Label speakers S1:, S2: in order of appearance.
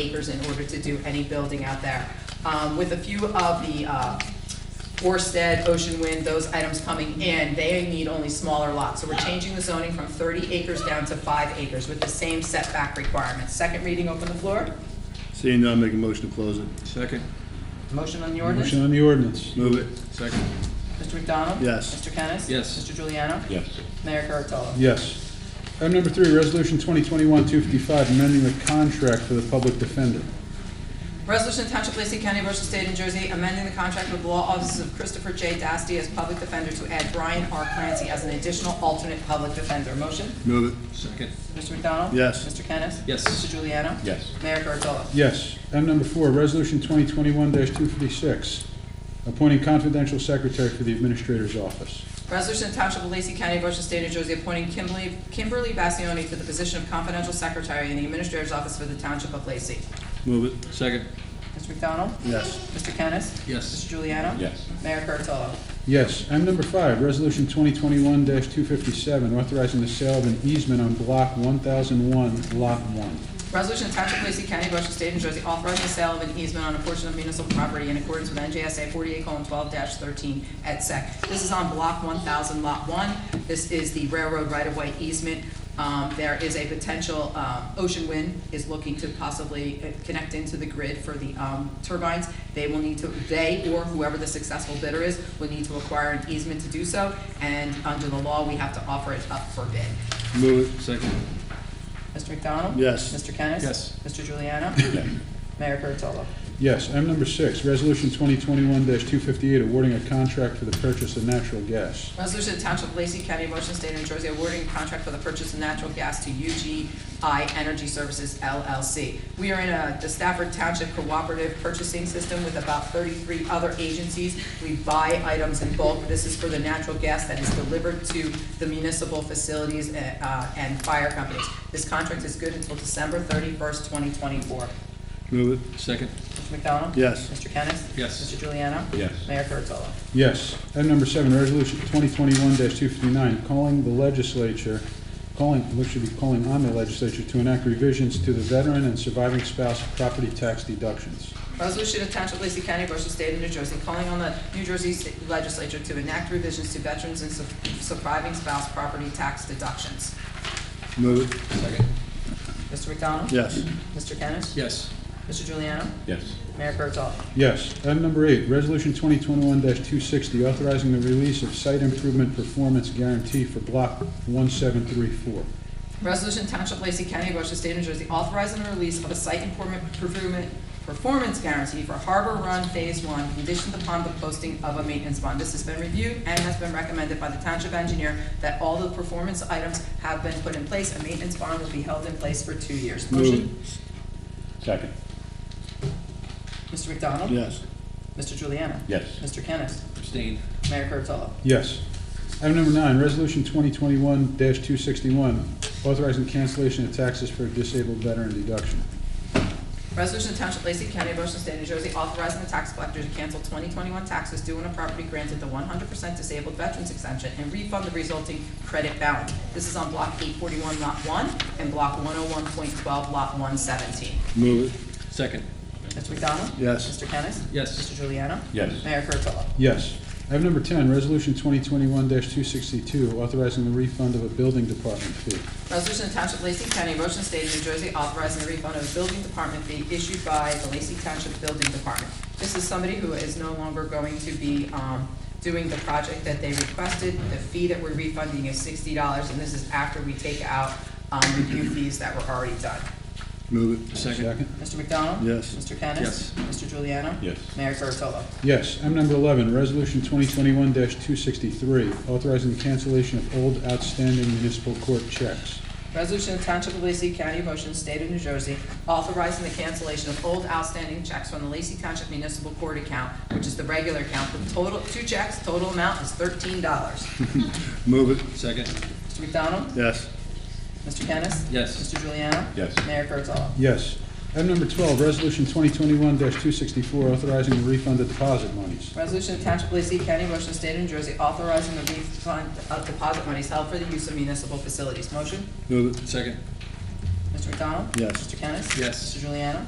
S1: acres in order to do any building out there. Um, With a few of the uh, Orsted, Ocean Wind, those items coming in, they need only smaller lots. So we're changing the zoning from 30 acres down to five acres with the same setback requirements. Second reading, open the floor.
S2: Seeing none, make a motion to close it.
S3: Second.
S1: Motion on the
S4: Motion
S1: ordinance?
S4: on the ordinance.
S2: Move it.
S3: Second.
S1: Mr. McDonald?
S2: Yes.
S1: Mr. Kennis?
S3: Yes.
S1: Mr. Juliano?
S5: yes,
S1: Mayor Kurtolo?
S4: Yes. Item number three, resolution 2021-255, amending the contract for the public defender.
S1: Resolution to Township of Lacey County, Ocean State, New Jersey, amending the contract with law offices of Christopher J. Dasty as public defender to add Brian R. Clancy as an additional alternate public defender. Motion?
S2: Move it.
S3: Second.
S1: Mr. McDonald?
S2: Yes.
S1: Mr. Kennis?
S3: Yes.
S1: Mr. Juliano?
S5: yes,
S1: Mayor Kurtolo?
S4: Yes. Item number four, resolution 2021-256, appointing confidential secretary for the administrator's office.
S1: Resolution to Township of Lacey County, Ocean State, New Jersey, appointing Kimberly, Kimberly Bassioni to the position of confidential secretary in the Administrator's Office for the Township of Lacey.
S2: Move it.
S3: Second.
S1: Mr. McDonald?
S2: Yes.
S1: Mr. Kennis? Mr.
S3: Yes.
S1: Juliano?
S5: yes,
S1: Mayor Kurtolo?
S4: Yes. Item number five, resolution 2021-257, authorizing the sale of an easement on block 1001, lot 1.
S1: Resolution of Township of Lacey County, Ocean State, New Jersey, authorizing the sale of an easement on a portion of municipal property in accordance with NJSA forty-eight twelve thirteen et sec. This is on block one thousand lot one. This is the railroad right-of-way easement. Um, there is a potential, um, Ocean Wind is looking to possibly uh, connect into the grid for the, um, turbines. They will need to, they or whoever the successful bidder is, will need to acquire an easement to do so. And under the law, we have to offer it up for bid.
S2: Move it.
S3: Second.
S1: Mr. McDonald?
S2: Yes.
S1: Mr. Kennis?
S3: Yes.
S1: Mr. Juliano?
S5: yes,
S1: Mayor Kurtolo.
S4: Yes. Item number six, resolution 2021-258, awarding a contract for the purchase of natural gas.
S1: Resolution to Township of Lacey County, Motion State of New Jersey, awarding contract for the purchase of natural gas to UGI Energy Services LLC. We are in a, the Stafford Township Cooperative Purchasing System with about thirty-three other agencies. We buy items in bulk. This is for the natural gas that is delivered to the municipal facilities uh, uh, and fire companies. This contract is good until December thirty-first, twenty twenty-four.
S2: Move it.
S3: Second.
S1: Mr. McDonald?
S2: Yes.
S1: Mr. Kennis?
S3: Yes.
S1: Mr. Juliano?
S5: yes,
S1: Mayor Kurtolo.
S4: Yes. Item number seven, resolution twenty twenty-one two fifty-nine, calling the legislature, calling, we should be calling on the legislature to enact revisions to the veteran and surviving spouse property tax deductions.
S1: Resolution of Township of Lacey County, Ocean State of New Jersey, calling on the New Jersey State Legislature to enact revisions to veterans and su- surviving spouse property tax deductions.
S2: Move it.
S3: Second.
S1: Mr. McDonald?
S2: Yes.
S1: Mr. Kennis?
S3: Yes.
S1: Mr. Juliano?
S5: yes,
S1: Mayor Kurtolo?
S4: Yes. Item number eight, resolution twenty twenty-one two sixty, authorizing the release of site improvement performance guarantee for block one seven three four.
S1: Resolution of Township of Lacey County, Ocean State of New Jersey, authorizing the release of a site improvement, improvement performance guarantee for Harbor Run Phase One, conditioned upon the posting of a maintenance bond. This has been reviewed and has been recommended by the township engineer that all the performance items have been put in place. A maintenance bond will be held in place for two years.
S2: Move
S1: Motion?
S5: second,
S1: Mr. McDonald?
S2: Yes.
S1: Mr. Juliana?
S5: yes,
S1: Mr. Kennis?
S3: Abstain.
S1: Mayor Kurtolo?
S4: Yes. Item number nine, resolution twenty twenty-one two sixty-one, authorizing cancellation of taxes for disabled veteran deduction.
S1: Resolution to Township of Lacey County, Ocean State, New Jersey, authorizing the tax collector to cancel 2021 taxes due on a property granted the 100% disabled veterans exemption and refund the resulting credit balance. This is on Block 841, Lot 1, and Block 101.12, Lot 117.
S2: Move
S3: Second.
S1: Mr. McDonald?
S2: Yes.
S1: Mr. Kennis?
S3: Yes.
S1: Mr. Juliana?
S5: yes,
S1: Mayor Kurtolo?
S4: Yes. Item number 10, Resolution 2021-262, authorizing the refund of a building department fee.
S1: Resolution of Township of Lacey County, Ocean State, New Jersey, authorizing the refund of building department fee issued by the Lacey Township Building Department. This is somebody who is no longer going to be um, doing the project that they requested. The fee that we're refunding is sixty dollars, and this is after we take out um, review fees that were already done.
S2: it. Move it.
S3: Second.
S1: Mr. McDonald?
S2: Yes.
S1: Mr. Kennis?
S3: Yes.
S1: Mr. Juliano?
S5: yes,
S1: Mayor Kurtolo?
S4: Yes. Item number 11, Resolution 2021-263, authorizing the cancellation of old outstanding municipal court checks.
S1: Resolution of Township of Lacey County, Motion State of New Jersey, authorizing the cancellation of old outstanding checks from the Lacey Township Municipal Court account, which is the regular account, the total, two checks, total amount is thirteen dollars.
S2: Move it.
S3: Second.
S1: Mr. McDonald?
S2: Yes.
S1: Mr. Kennis?
S3: Yes.
S1: Mr. Juliano?
S5: yes,
S1: Mayor Kurtolo?
S4: Yes. Item number 12, Resolution 2021-264, authorizing the refund of deposit monies.
S1: Resolution of Township of Lacey County, Motion State of New Jersey, authorizing the refund of deposit monies held for the use of municipal facilities. Motion?
S2: Move it.
S3: Second.
S1: Mr. McDonald?
S2: Yes.
S1: Mr. Kennis?
S3: Yes.
S1: Mr. Juliano?